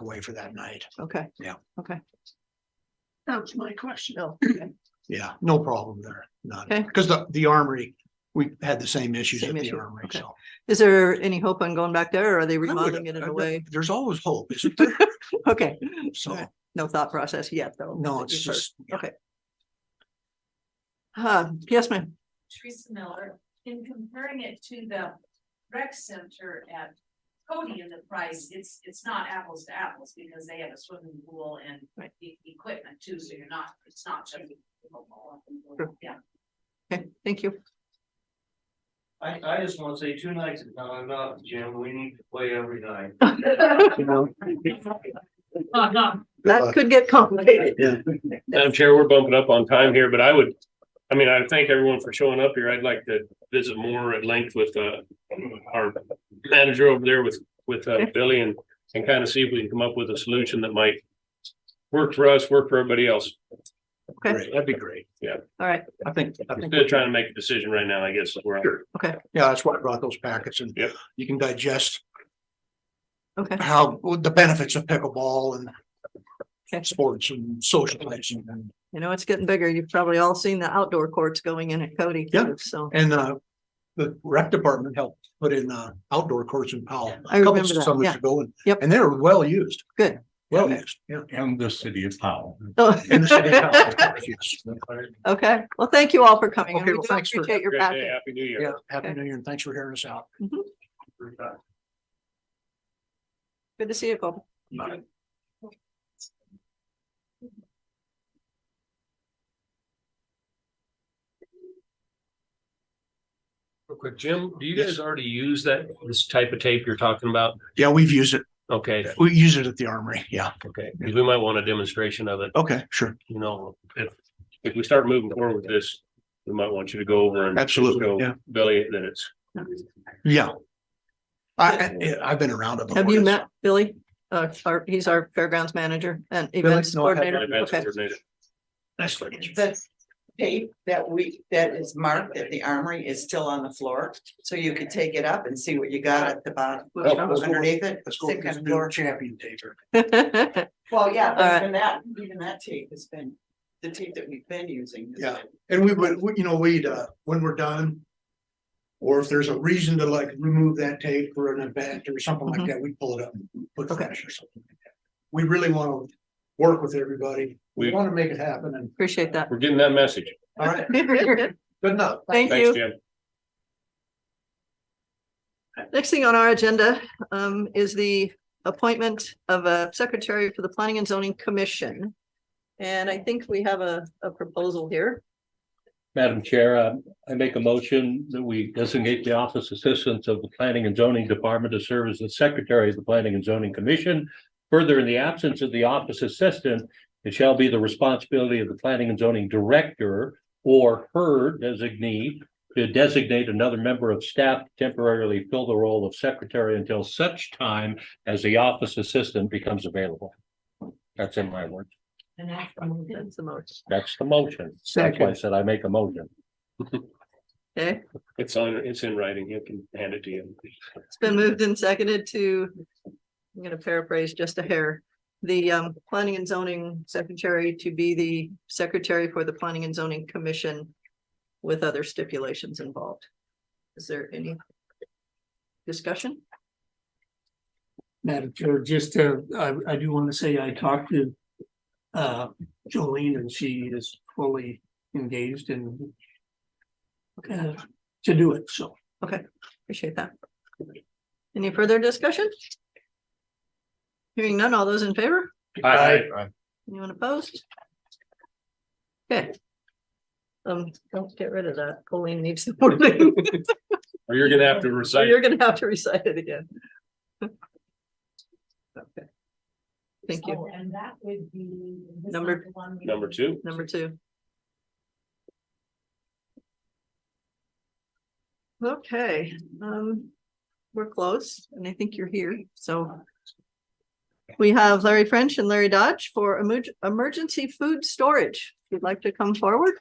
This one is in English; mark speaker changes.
Speaker 1: away for that night.
Speaker 2: Okay.
Speaker 1: Yeah.
Speaker 2: Okay,
Speaker 1: That's my question.
Speaker 2: no, okay,
Speaker 1: Yeah, no problem there, none.
Speaker 2: Okay.
Speaker 1: Because the, the armory, we had the same issues at
Speaker 2: Same
Speaker 1: the
Speaker 2: issue,
Speaker 1: armory,
Speaker 2: okay.
Speaker 1: so.
Speaker 2: is there any hope on going back there or are they
Speaker 1: I would-
Speaker 2: remodeling it in
Speaker 1: I-
Speaker 2: a way?
Speaker 1: There's always hope, isn't there?
Speaker 2: Okay,
Speaker 1: So,
Speaker 2: no thought process yet, though.
Speaker 1: no,
Speaker 2: that
Speaker 1: it's
Speaker 2: you've heard.
Speaker 1: just, yeah,
Speaker 2: Uh, yes, ma'am,
Speaker 3: Teresa Miller, in comparing it to the rec center at Cody and the price, it's, it's not apples to apples because they have a swimming pool and
Speaker 2: Right.
Speaker 3: e- equipment too, so you're not, it's not just.
Speaker 2: Sure.
Speaker 3: Yeah.
Speaker 2: okay, thank you.
Speaker 4: I, I just wanna say two nights is not enough, Jim, we need to play every night.
Speaker 2: Uh, That could get complicated.
Speaker 5: Madam Chair, we're bumping up on time here, but I would, I mean, I thank everyone for showing up here. I'd like to visit more at length with uh our manager over there with with uh Billy and and kind of see if we can come up with a solution that might work for us, work for everybody else.
Speaker 2: Okay,
Speaker 1: great, that'd be great.
Speaker 5: Yeah,
Speaker 2: all right,
Speaker 1: I think, I think,
Speaker 5: instead of trying to make a decision right now, I guess, is where I'm.
Speaker 1: yeah, that's why I brought those packets and
Speaker 5: Yep.
Speaker 1: you can digest
Speaker 2: okay,
Speaker 1: how, what the benefits of pickleball
Speaker 2: Okay.
Speaker 1: and sports and socializing and,
Speaker 2: you know, it's getting bigger. You've probably all seen the outdoor courts going in at Cody.
Speaker 1: Yeah.
Speaker 2: too, So,
Speaker 1: and, uh, the rec department helped put in, uh, outdoor courts in Powell. a
Speaker 2: I
Speaker 1: couple
Speaker 2: remember that,
Speaker 1: summers
Speaker 2: yeah.
Speaker 1: ago, and-
Speaker 2: Yep.
Speaker 1: And they were well used.
Speaker 2: Good.
Speaker 1: Well
Speaker 2: Okay.
Speaker 1: used, yeah.
Speaker 6: and the city of Powell.
Speaker 2: Oh,
Speaker 1: In the city of Powell, of course, yes.
Speaker 2: okay, well, thank you all for coming. and
Speaker 1: Okay,
Speaker 2: we
Speaker 1: well,
Speaker 2: do
Speaker 1: thanks for-
Speaker 2: Appreciate your
Speaker 5: Great
Speaker 2: passion.
Speaker 5: day, Happy New Year.
Speaker 1: Yeah, happy new year and thanks for hearing us out.
Speaker 2: Good to see you, Colby.
Speaker 1: Bye.
Speaker 5: Real quick, Jim, do you
Speaker 1: Yes.
Speaker 5: guys already use that, this type of tape you're talking about?
Speaker 1: Yeah, we've used it.
Speaker 5: Okay,
Speaker 1: We use it at the armory. Yeah.
Speaker 5: okay, 'Cause we might want a demonstration of it,
Speaker 1: Okay, sure.
Speaker 5: you know, if if we start moving forward with this, we might want you to go over and.
Speaker 1: Absolutely,
Speaker 5: show
Speaker 1: yeah.
Speaker 5: Billy that it's
Speaker 1: Yeah. I, I, I've been around it.
Speaker 2: Have
Speaker 1: before,
Speaker 2: you
Speaker 1: so-
Speaker 2: met Billy? Uh, our, he's our fairgrounds manager and events
Speaker 1: No, I haven't.
Speaker 2: coordinator.
Speaker 5: an events
Speaker 2: Okay,
Speaker 5: coordinator.
Speaker 1: Nice to meet you.
Speaker 7: The tape that we, that is marked at the armory is still on the floor, so you could take it up and see what you got at the bottom.
Speaker 1: Let's go with-
Speaker 7: Underneath it,
Speaker 1: Let's go
Speaker 7: same
Speaker 1: with
Speaker 7: kind
Speaker 1: this
Speaker 7: of
Speaker 1: new Uh,
Speaker 7: floor.
Speaker 1: champion taker.
Speaker 7: Well, yeah,
Speaker 2: All right.
Speaker 7: but even that, even that tape has been, the tape that we've been using. has
Speaker 1: Yeah.
Speaker 7: been-
Speaker 1: And we would, we- you know, we'd, uh, when we're done. Or if there's a reason to like remove that tape for an event or something like
Speaker 2: Mhm.
Speaker 1: that, we pull it up and put
Speaker 2: Okay.
Speaker 1: fresh or something. like that. We really want to work with everybody. We
Speaker 5: We-
Speaker 1: want to make it happen and,
Speaker 2: Appreciate that.
Speaker 5: We're getting that message.
Speaker 1: all right,
Speaker 2: Thank
Speaker 1: good enough.
Speaker 2: you.
Speaker 5: Thanks, Jim.
Speaker 2: Next thing on our agenda um is the appointment of a secretary for the Planning and Zoning Commission. And I think we have a a proposal here.
Speaker 8: Madam Chair, uh, I make a motion that we designate the office assistants of the Planning and Zoning Department to serve as the Secretary of the Planning and Zoning Commission. Further, in the absence of the office assistant, it shall be the responsibility of the Planning and Zoning Director or her designee to designate another member of staff to temporarily fill the role of secretary until such time as the office assistant becomes available. That's in my words.
Speaker 2: That's the most.
Speaker 8: That's the motion. That's why I said I make a motion.
Speaker 2: Okay,
Speaker 5: It's on, it's in writing. You can hand it to you.
Speaker 2: it's been moved and seconded to, I'm gonna paraphrase just a hair. The um Planning and Zoning Secretary to be the secretary for the Planning and Zoning Commission with other stipulations involved. Is there any discussion?
Speaker 9: Madam Chair, just, uh, I, I do want to say I talked to uh, Jolene and she is fully engaged in uh, to do it, so.
Speaker 2: Appreciate that. Any further discussion? Hearing none, all those in favor?
Speaker 5: Aye.
Speaker 2: Anyone opposed? Okay. Um, don't get rid of that. Colleen needs the wording.
Speaker 5: Or you're gonna have to
Speaker 2: So
Speaker 5: recite.
Speaker 2: you're gonna have to recite it again. Okay. Thank you.
Speaker 3: Oh, And that would be. is this
Speaker 2: Number-
Speaker 3: not the one we-
Speaker 5: Number two.
Speaker 2: Number two. Okay, um, we're close and I think you're here, so. We have Larry French and Larry Dodge for emerg- emergency food storage. If you'd like to come forward.